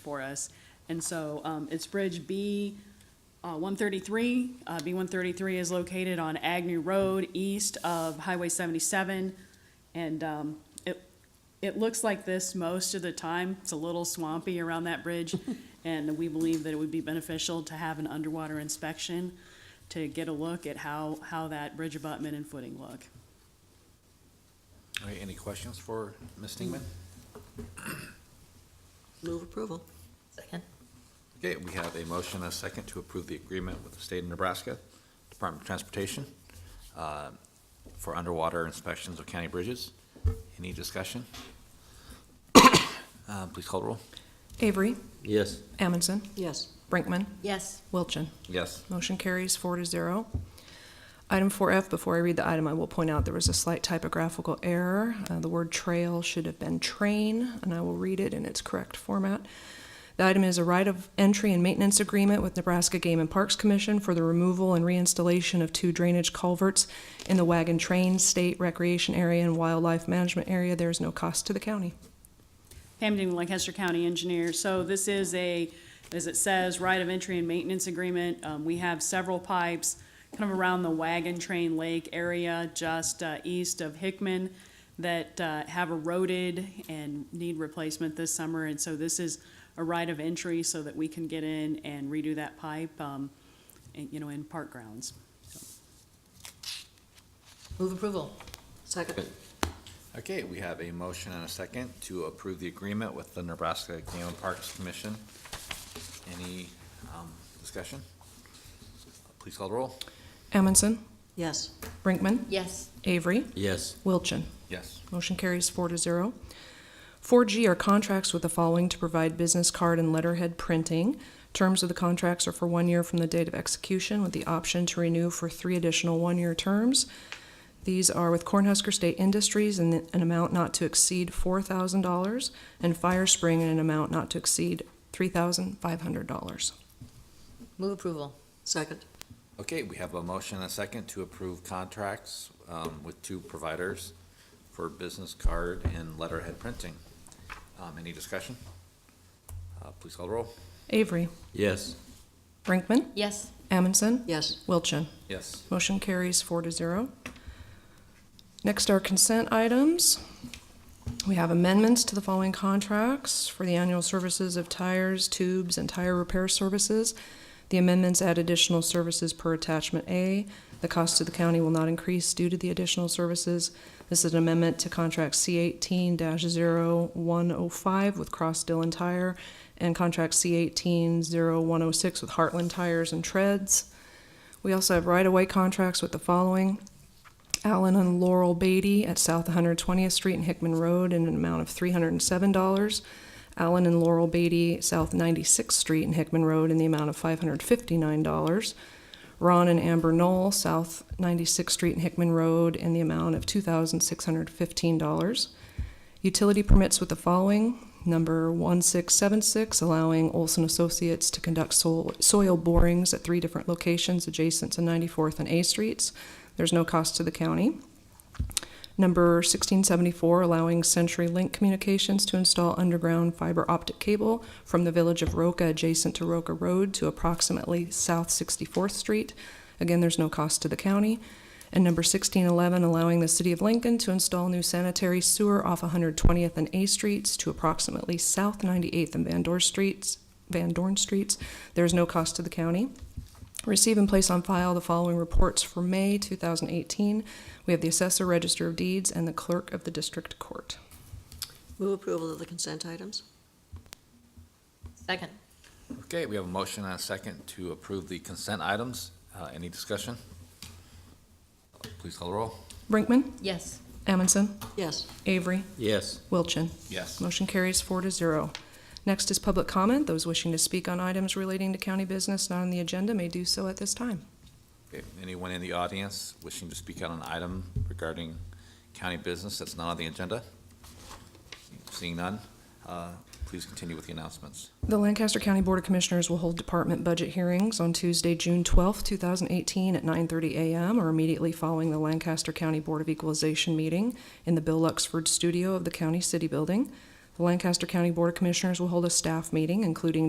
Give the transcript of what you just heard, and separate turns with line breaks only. for us. And so um, it's Bridge B uh, 133. Uh, B 133 is located on Agnew Road, east of Highway 77. And um, it, it looks like this most of the time. It's a little swampy around that bridge. And we believe that it would be beneficial to have an underwater inspection to get a look at how, how that bridge abutment and footing look.
All right, any questions for Ms. Stingman?
Move approval. Second.
Okay, we have a motion and a second to approve the agreement with the state of Nebraska Department of Transportation uh, for underwater inspections of county bridges. Any discussion? Uh, Please call the roll.
Avery,
Yes.
Amundson,
Yes.
Brinkman,
Yes.
Wilchin.
Yes.
Motion carries four to zero. Item 4F, before I read the item, I will point out there was a slight typographical error. Uh, The word trail should have been train, and I will read it in its correct format. The item is a right of entry and maintenance agreement with Nebraska Game and Parks Commission for the removal and reinstallation of two drainage culverts in the Wagon Train State Recreation Area and Wildlife Management Area. There is no cost to the county.
Hamden, Lancaster County Engineer. So this is a, as it says, right of entry and maintenance agreement. Um, we have several pipes kind of around the Wagon Train Lake area, just, uh, east of Hickman that, uh, have eroded and need replacement this summer. And so this is a right of entry so that we can get in and redo that pipe, um, and, you know, in park grounds.
Move approval. Second.
Okay, we have a motion and a second to approve the agreement with the Nebraska Game and Parks Commission. Any um, discussion? Please call the roll.
Amundson,
Yes.
Brinkman,
Yes.
Avery,
Yes.
Wilchin.
Yes.
Motion carries four to zero. Four G are contracts with the following to provide business card and letterhead printing. Terms of the contracts are for one year from the date of execution with the option to renew for three additional one-year terms. These are with Cornhusker State Industries in an amount not to exceed four thousand dollars and Fire Spring in an amount not to exceed three thousand five hundred dollars.
Move approval. Second.
Okay, we have a motion and a second to approve contracts um, with two providers for business card and letterhead printing. Um, Any discussion? Uh, Please call the roll.
Avery,
Yes.
Brinkman,
Yes.
Amundson,
Yes.
Wilchin.
Yes.
Motion carries four to zero. Next are consent items. We have amendments to the following contracts for the annual services of tires, tubes, and tire repair services. The amendments add additional services per attachment A. The cost to the county will not increase due to the additional services. This is an amendment to contract C eighteen 105 with Cross Dillon Tire and contract C eighteen 106 with Heartland Tires and Treads. We also have right-of-way contracts with the following. Allen and Laurel Beatty at South 120th Street and Hickman Road in an amount of $307. Allen and Laurel Beatty, South 96th Street and Hickman Road in the amount of $559. Ron and Amber Knoll, South 96th Street and Hickman Road in the amount of $2,615. Utility permits with the following. Number 1676, allowing Olson Associates to conduct soil soil borings at three different locations adjacent to 94th and A Streets. There's no cost to the county. Number 1674, allowing Century Link Communications to install underground fiber optic cable from the village of Roca adjacent to Roca Road to approximately South 64th Street. Again, there's no cost to the county. And number 1611, allowing the city of Lincoln to install new sanitary sewer off 120th and A Streets to approximately South 98th and Van Dorn Streets, Van Dorn Streets. There is no cost to the county. Receive and place on file the following reports for May 2018. We have the Assessor Register of Deeds and the Clerk of the District Court.
Move approval of the consent items. Second.
Okay, we have a motion and a second to approve the consent items. Uh, Any discussion? Please call the roll.
Brinkman,
Yes.
Amundson,
Yes.
Avery,
Yes.
Wilchin.
Yes.
Motion carries four to zero. Next is public comment. Those wishing to speak on items relating to county business not on the agenda may do so at this time.
Okay, Anyone in the audience wishing to speak on an item regarding county business that's not on the agenda? Seeing none, uh, please continue with the announcements.
The Lancaster County Board of Commissioners will hold department budget hearings on Tuesday, June 12, 2018, at 9:30 a.m. or immediately following the Lancaster County Board of Equalization meeting in the Bill Luxford Studio of the County City Building. The Lancaster County Board of Commissioners will hold a staff meeting, including